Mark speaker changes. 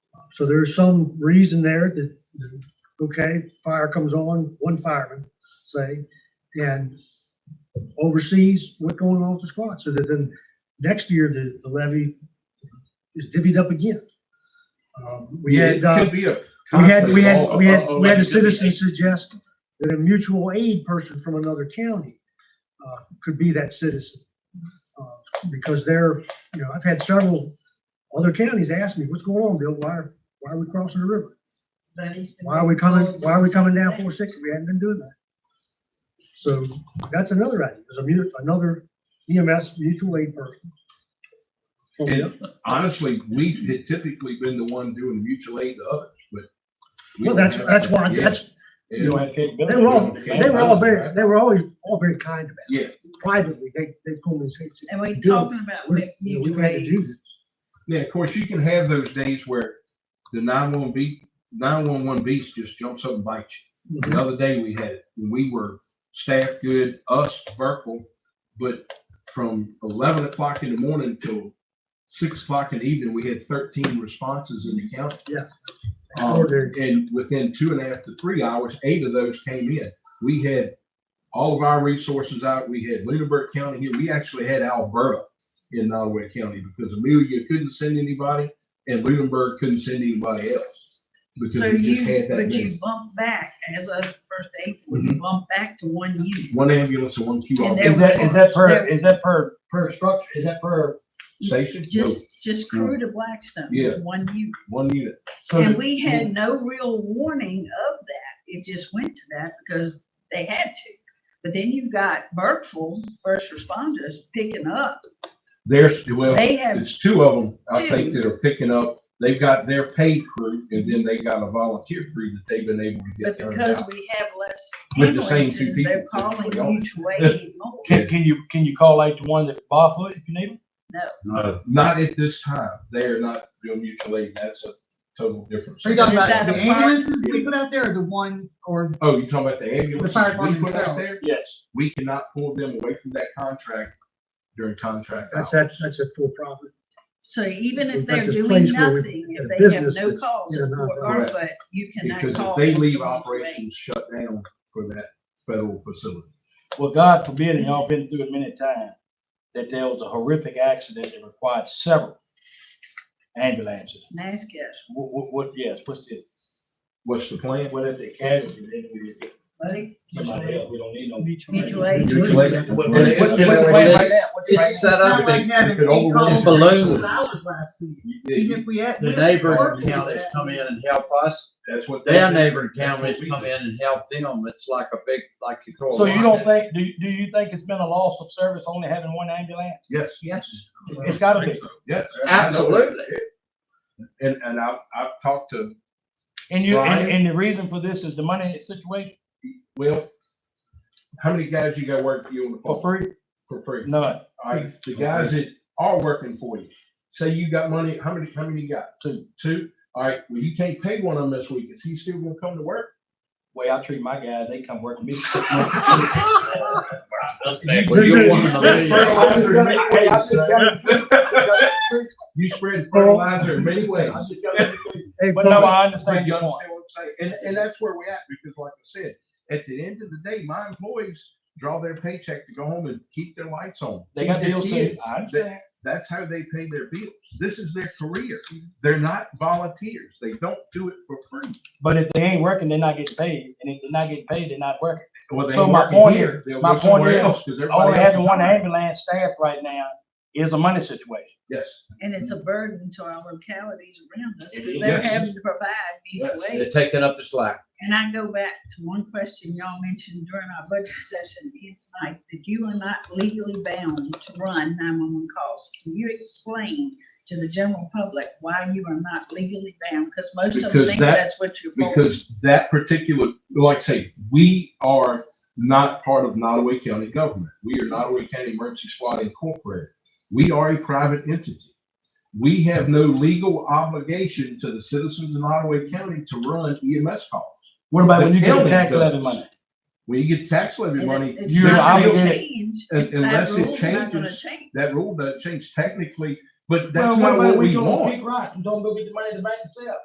Speaker 1: So there's some reason there that, that, okay, fire comes on, one fireman, say, and oversees what's going on with the squad, so that then next year the, the levy is divvied up again. Um, We
Speaker 2: Yeah,
Speaker 1: had,
Speaker 2: it
Speaker 1: uh,
Speaker 2: could be a
Speaker 1: we had, we
Speaker 2: conflict
Speaker 1: had,
Speaker 2: all-
Speaker 1: we had,
Speaker 2: all- all
Speaker 1: we had a
Speaker 2: that could be-
Speaker 1: citizen suggest that a mutual aid person from another county, uh, could be that citizen. Uh, Because they're, you know, I've had several other counties ask me, what's going on, Bill? Why, are- why are we crossing the river? Why are we coming, why are we coming down four sixty? We haven't been doing that. So that's another idea, there's a mu, another EMS mutual aid person.
Speaker 2: And honestly, we had typically been the one doing mutual aid to others, but. we
Speaker 1: Well,
Speaker 2: don't
Speaker 1: that's,
Speaker 2: have-
Speaker 1: that's why,
Speaker 2: Yeah,
Speaker 1: that's,
Speaker 2: yeah.
Speaker 3: You don't have capability.
Speaker 1: They were all,
Speaker 2: Yeah.
Speaker 1: they were all very, they were always, all very kind about it.
Speaker 2: Yeah.
Speaker 1: Privately, they, they told me, say, say,
Speaker 4: And we're
Speaker 1: Bill,
Speaker 4: talking about
Speaker 1: we're-
Speaker 4: with
Speaker 1: you know, we've
Speaker 4: mutual
Speaker 1: had to
Speaker 4: aid.
Speaker 1: do this.
Speaker 2: Yeah, of course, you can have those days where the nine-one beat, nine-one-one beast just jumps up and bites you.
Speaker 1: Mm-hmm.
Speaker 2: The other day we had, it, when we were staff good, us, Burkeville, but from eleven o'clock in the morning till six o'clock in the evening, we had thirteen responses in the county.
Speaker 1: Yes.
Speaker 2: Um,
Speaker 1: Extraordinary.
Speaker 2: and within two and a half to three hours, eight of those came in. We had all of our resources out. We had Lunenburg County here. We actually had Alberta in Nottaway County because Amelia couldn't send anybody and Lunenburg couldn't send anybody else. Because
Speaker 4: So
Speaker 2: we just
Speaker 4: you,
Speaker 2: had that Mm-hmm.
Speaker 4: would
Speaker 2: many.
Speaker 4: you bump back as of first April, would you bump back to one unit?
Speaker 2: one ambulance and one
Speaker 4: And
Speaker 2: QR
Speaker 4: there
Speaker 3: Is that, is that per,
Speaker 4: There-
Speaker 3: is that per, per structure, is that per,
Speaker 2: station. No,
Speaker 4: Just, just crew to Blackstone,
Speaker 2: Yeah.
Speaker 4: one unit.
Speaker 2: one unit.
Speaker 3: so,
Speaker 4: And we had no real warning of that, it just went to that because they had to. But then you've got Burkeville first responders picking up,
Speaker 2: There's, well,
Speaker 4: they have,
Speaker 2: it's two of them, I think,
Speaker 4: Two.
Speaker 2: that are picking up. They've got their paid crew and then they got a volunteer crew that they've been able to
Speaker 4: but
Speaker 2: get. turned
Speaker 4: because
Speaker 2: out.
Speaker 4: we have less
Speaker 2: With the same two
Speaker 4: ambulances,
Speaker 2: people
Speaker 4: they're
Speaker 2: that
Speaker 4: calling
Speaker 2: we always-
Speaker 4: mutual aid more.
Speaker 3: can, can you, can you call out to one that Barfoot if you need them?
Speaker 2: No, not at this time. They are not doing mutual aid. That's a total difference.
Speaker 5: Are you talking
Speaker 4: Is
Speaker 5: about
Speaker 4: that
Speaker 5: the
Speaker 4: the fire-
Speaker 5: ambulances we put out there or the one, or,
Speaker 2: Oh, you're talking about the ambulance
Speaker 5: fire
Speaker 2: we
Speaker 5: department
Speaker 2: put out
Speaker 5: itself.
Speaker 2: there?
Speaker 3: Yes.
Speaker 2: We cannot pull them away from that contract during contract
Speaker 1: That's,
Speaker 2: hours.
Speaker 1: that's, that's a full profit.
Speaker 4: So even
Speaker 1: We've
Speaker 4: if
Speaker 1: got
Speaker 4: they're
Speaker 1: this
Speaker 4: doing
Speaker 1: place where we-
Speaker 4: nothing,
Speaker 1: a
Speaker 4: if they have
Speaker 1: business
Speaker 4: no
Speaker 1: that's
Speaker 4: calls
Speaker 1: in a
Speaker 4: for
Speaker 2: nonprofit.
Speaker 4: ARPA, you cannot
Speaker 2: Because
Speaker 4: call.
Speaker 2: if they
Speaker 4: for
Speaker 2: leave
Speaker 4: mutual aid.
Speaker 2: operations shut down for that federal facility.
Speaker 3: Well, God forbid, and y'all been through it many times, that there was a horrific accident that required several ambulances.
Speaker 4: NASCAR,
Speaker 3: What, what, what, yes, what's the,
Speaker 2: What's the plan?
Speaker 3: what if the casualty, then we get
Speaker 4: buddy,
Speaker 3: somebody else, we don't need no.
Speaker 4: mutual aid.
Speaker 2: Mutual aid.
Speaker 3: What-
Speaker 2: And it's-
Speaker 3: what's the plan right now? What's the plan?
Speaker 6: It's set
Speaker 5: it's not
Speaker 6: up,
Speaker 5: like
Speaker 6: that
Speaker 5: having
Speaker 2: could
Speaker 5: eight calls
Speaker 6: overrun
Speaker 5: in
Speaker 6: balloons.
Speaker 5: six hours last week, even
Speaker 2: Yeah,
Speaker 5: if we had.
Speaker 6: the
Speaker 5: even if we
Speaker 6: neighboring
Speaker 5: worked with
Speaker 6: counties
Speaker 5: that.
Speaker 6: come in and help us,
Speaker 2: That's what. they
Speaker 6: their
Speaker 2: do.
Speaker 6: neighboring
Speaker 2: That's what
Speaker 6: counties
Speaker 2: we
Speaker 6: come
Speaker 2: do.
Speaker 6: in and help them, it's like a big, like you throw a.
Speaker 3: So you
Speaker 6: line
Speaker 3: don't
Speaker 6: at-
Speaker 3: think, do, you- do you think it's been a loss of service only having one ambulance?
Speaker 2: Yes, yes,
Speaker 3: It's gotta be.
Speaker 2: yes.
Speaker 6: Absolutely.
Speaker 2: And, and I've, I've talked to
Speaker 3: And you,
Speaker 2: Brian?
Speaker 3: and, and the reason for this is the money situation
Speaker 2: Well, how many guys you got working for you on the
Speaker 3: for
Speaker 2: phone
Speaker 3: free?
Speaker 2: for free?
Speaker 3: None.
Speaker 2: All right, the guys that are working for you, say you got money, how many, how many you got?
Speaker 3: Two.
Speaker 2: Two? All right, well, you can't pay one of them this week. Is he still gonna come to work?
Speaker 3: Way I treat my guys, they come work with me.
Speaker 6: Well, you're one of
Speaker 2: Spread
Speaker 6: the-
Speaker 2: fertilizer in many ways. You spread fertilizer in many ways.
Speaker 1: Hey,
Speaker 3: But no,
Speaker 1: Paul,
Speaker 2: But
Speaker 3: I understand
Speaker 2: you
Speaker 3: your
Speaker 2: understand
Speaker 3: point.
Speaker 2: what I'm saying? And, and that's where we're at, because like I said, at the end of the day, my employees draw their paycheck to go home and keep their lights on.
Speaker 3: They got
Speaker 2: Keep their
Speaker 3: bills too.
Speaker 2: kids.
Speaker 3: I understand.
Speaker 2: That's how they pay their bills. This is their career. They're not volunteers. They don't do it for free.
Speaker 3: But if they ain't working, they're not getting paid. And if they're not getting paid, they're not working.
Speaker 2: Well, they
Speaker 3: So
Speaker 2: ain't
Speaker 3: my
Speaker 2: working
Speaker 3: point
Speaker 2: here.
Speaker 3: is-
Speaker 2: They'll
Speaker 3: my
Speaker 2: go somewhere
Speaker 3: point is,
Speaker 2: else 'cause everybody
Speaker 3: Only
Speaker 2: else
Speaker 3: having
Speaker 2: is
Speaker 3: one
Speaker 2: hired.
Speaker 3: ambulance staff right now is a money situation.
Speaker 2: Yes.
Speaker 4: And it's a burden to our localities around us,
Speaker 3: It
Speaker 4: because
Speaker 3: is.
Speaker 4: they're
Speaker 2: Yes.
Speaker 4: having to provide mutual
Speaker 6: They're
Speaker 4: aid.
Speaker 6: taking up the slack.
Speaker 4: And I go back to one question y'all mentioned during our budget session here tonight, that you are not legally bound to run nine-one-one calls. Can you explain to the general public why you are not legally bound? Because most of them
Speaker 2: Because
Speaker 4: think
Speaker 2: that-
Speaker 4: that's what you're for.
Speaker 2: because that particular, like I say, we are not part of Nottaway County government. We are Nottaway County Emergency Squad Incorporated. We are a private entity. We have no legal obligation to the citizens of Nottaway County to run EMS calls.
Speaker 3: What about
Speaker 2: The
Speaker 3: when you get
Speaker 2: county
Speaker 3: tax levy
Speaker 2: does.
Speaker 3: money?
Speaker 2: When you get tax levy
Speaker 4: And it-
Speaker 2: money,
Speaker 4: it's
Speaker 3: you're
Speaker 4: not gonna
Speaker 3: obligated-
Speaker 4: change.
Speaker 2: un-
Speaker 4: It's that
Speaker 2: unless it
Speaker 4: rule's not gonna
Speaker 2: changes.
Speaker 4: change.
Speaker 2: that rule doesn't change technically, but
Speaker 3: Well,
Speaker 2: that's not
Speaker 3: about
Speaker 2: what
Speaker 3: when
Speaker 2: we
Speaker 3: you go on
Speaker 2: want.
Speaker 3: Pink Rock and don't go get the money in the bank yourself?